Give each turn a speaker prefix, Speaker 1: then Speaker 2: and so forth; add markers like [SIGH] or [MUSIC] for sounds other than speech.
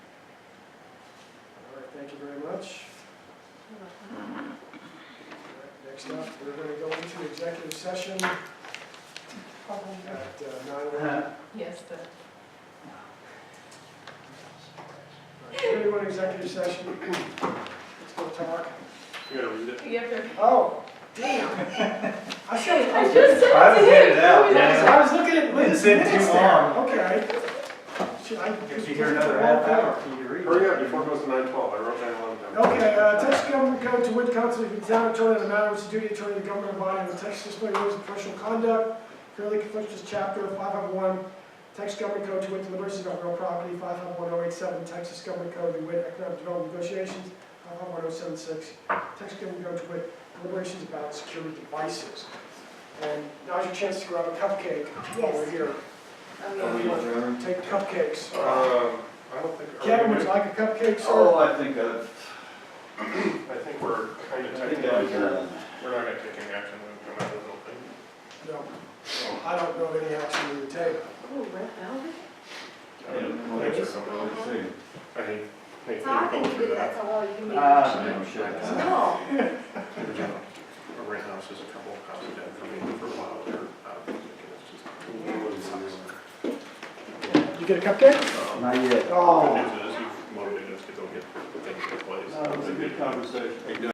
Speaker 1: very much. Next up, we're going to go into executive session uh, at nine.
Speaker 2: Uh-huh.
Speaker 3: Yes, the.
Speaker 1: Anyone executive session? Let's go talk.
Speaker 4: You gotta read it.
Speaker 3: You have to.
Speaker 1: Oh, damn. I said.
Speaker 3: [LAUGHS] I just said
Speaker 2: I
Speaker 3: to
Speaker 2: was
Speaker 3: him.
Speaker 2: headed out,
Speaker 1: Yes,
Speaker 2: yeah.
Speaker 1: I was looking at Lynn's
Speaker 2: It's been too
Speaker 1: minutes there.
Speaker 2: long.
Speaker 1: Okay. Should I just-
Speaker 2: If you hear another half hour, can you read?
Speaker 4: Hurry up before it goes to nine twelve, I wrote nine eleven down.
Speaker 1: Okay, uh, Texas Government Code to Wood Council, the town attorney, the matter was the duty attorney of the government body of the Texas Disciplinary Rules of Professional Conduct, clearly conflicts with chapter five hundred one, Texas Government Code to Wood Deliberations about Real Property, five hundred one oh eight seven, Texas Government Code to Wood Economic Development Negotiations, five hundred one oh seven six, Texas Government Code to Wood Deliberations about Secure Devices. And now's your chance to grab a cupcake over
Speaker 3: Yes.
Speaker 1: here.
Speaker 3: Oh, yeah.
Speaker 1: Take cupcakes.
Speaker 4: Um, I don't think. are we
Speaker 1: Kevin, would you
Speaker 4: doing-
Speaker 1: like a cupcake, sir?
Speaker 2: Oh, I think I've,
Speaker 4: I think we're kind of
Speaker 2: I think
Speaker 4: technically,
Speaker 2: I've,
Speaker 4: here.
Speaker 2: uh,
Speaker 4: we're not gonna take any action when we come out of the building.
Speaker 1: No. I don't know of any action we would take.
Speaker 3: Oh, red velvet?
Speaker 4: I don't know.
Speaker 2: Yeah.
Speaker 4: Thanks for coming over.
Speaker 2: let's see.
Speaker 4: I hate, hate.
Speaker 5: So I think
Speaker 4: going
Speaker 5: you
Speaker 4: through
Speaker 5: do, that's a law you need.
Speaker 3: Uh,
Speaker 2: Ah, no, shut up.
Speaker 5: No,
Speaker 4: A rent house is a couple of houses down from me for a while there. uh, it's just-
Speaker 1: You get a cupcake?
Speaker 4: Um,
Speaker 2: Not yet.
Speaker 4: Good
Speaker 1: Oh.
Speaker 4: news is you've motivated us to go get things in place.
Speaker 2: No, it was a good conversation.